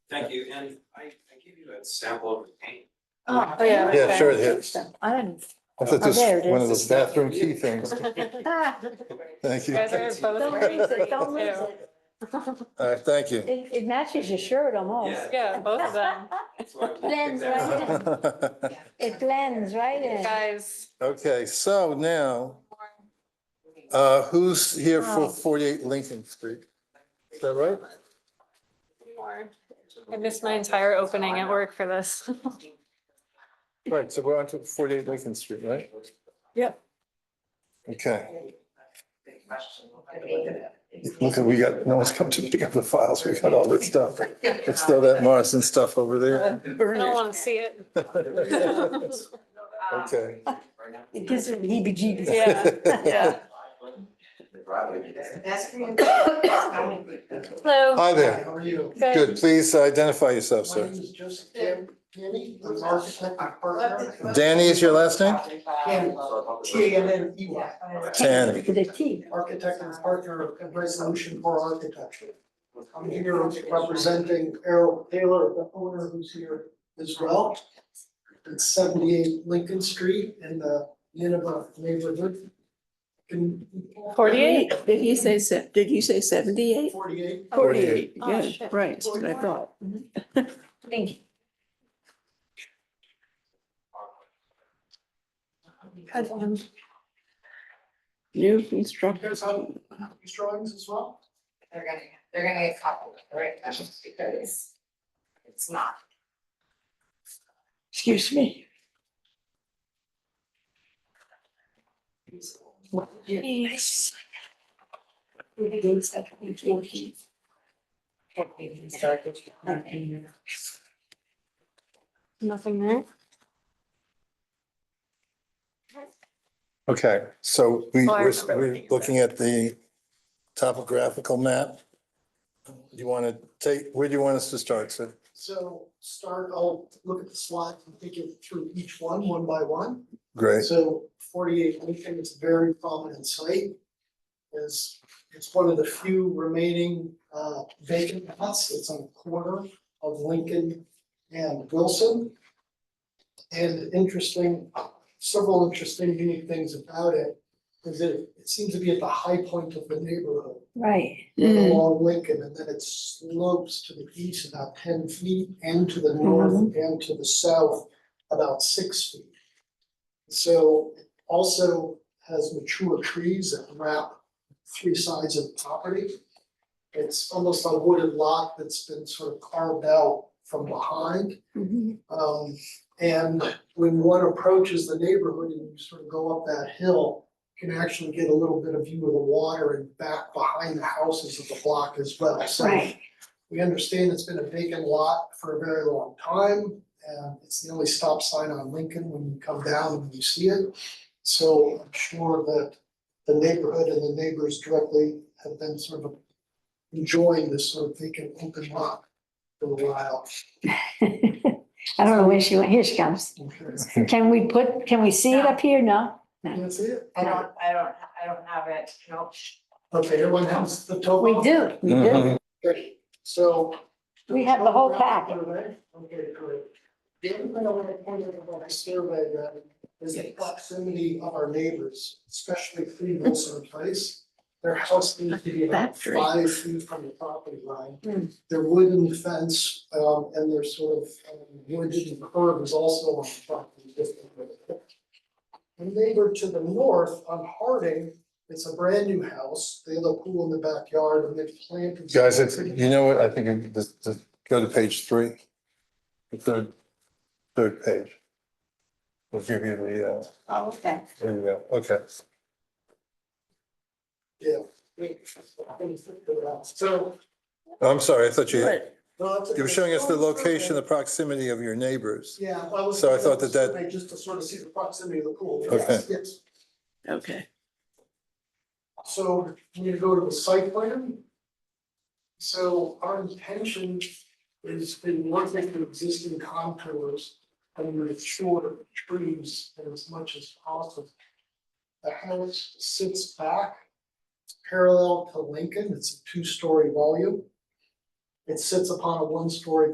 Thank you, and I, I gave you a sample of the paint. Oh, Oh, yeah. Yeah, sure it is. I didn't. I thought Oh, this there was it one of is. those bathroom key things. Ah, Thank you. Guys All are Don't both wearing lose green it, don't lose too. it. right, thank you. It, it matches your shirt almost. Yeah, both of them. So I- Blends right in. It blends right in. Guys, Okay, so now, uh, who's here Oh. for forty-eight Lincoln Street? Is that right? I missed my entire opening at work for this. Right, so we're on to forty-eight Lincoln Street, right? Yep. Okay. Look, we got, no one's come to pick up the files. We got all this stuff. Let's throw that Morrison stuff over there. I don't want to see it. Okay. It gives it heebie-jeebies. Yeah, yeah. Hello, Hi there. How are you? good. Good, please uh, identify yourself, My sir. name is Joseph Dan- Danny, I'm an architect and partner. Danny is your last name? Danny, T A N N E Y, Tanny. With a T. architect and partner of Resolution for Architecture. I'm here representing Errol Taylor, the owner who's here as well. It's seventy-eight Lincoln Street in the Nineveh neighborhood. Can- forty-eight. Did he say se- did you say seventy-eight? Forty-eight. Forty-eight. Oh, Yeah, shit. right, that's what I thought. Thank you. New construction. Here's how, these drawings as well. They're gonna, they're gonna get copied, right, now, because it's not. Excuse me. Nothing there. Okay, so we, Oh, I we're, remember looking we're at that. looking at the topographical map. You want to take, where do you want us to start, sir? So start, I'll look at the slides and take you through each one, one by one. Great. So forty-eight Lincoln is a very prominent site. Is, it's one of the few remaining uh, vacant lots. It's on the corner of Lincoln and Wilson. And interesting, several interesting unique things about it is that it seems to be at the high point of the neighborhood Right. along Lincoln, and then it slopes to the east about ten feet, and to the north, and to the south about six feet. So it also has mature trees that wrap three sides of the property. It's almost a wooded lot that's been sort of carved out from behind. Mm-hmm, Um, and when one approaches the neighborhood and you sort of go up that hill, you can actually get a little bit of view of the water and back behind the houses of the block as well. So Right. we understand it's been a vacant lot for a very long time. And it's the only stop sign on Lincoln when you come down and you see it. So I'm sure that the neighborhood and the neighbors directly have been sort of enjoying this sort of vacant open lot for a while. I don't know where she went. Here she comes. Can we put, can we see it up here? No? That's it. I don't, I don't, I don't have it, no. Okay, everyone has the total? We do. Mm-hmm. We do. Okay, So. We have the whole packet. Okay, great. The other thing I want to point out about our survey then is the proximity of our neighbors, especially three Wilson Place. Their house needs to be about Factory. five feet from the property line. Hmm. Their wooden fence, um, and their sort of um, wooden curb is also on the property. The neighbor to the north on Harding, it's a brand new house. They have a pool in the backyard and they've planted. Guys, it's, you know what, I think, it- this, this, go to page three. The third, third page. We'll give you the, uh, Oh, okay. there you go, okay. Yeah. So. I'm sorry, I thought you, you You were showing us the location, the proximity of your neighbors. Yeah. well, was- So I thought that that- Just to sort of see the proximity of the pool. Okay. Yes, yes. Okay. So we need to go to the site plan. So our intention is to work with the existing contours and mature trees as much as possible. The house sits back parallel to Lincoln. It's a two-story volume. It sits upon a one-story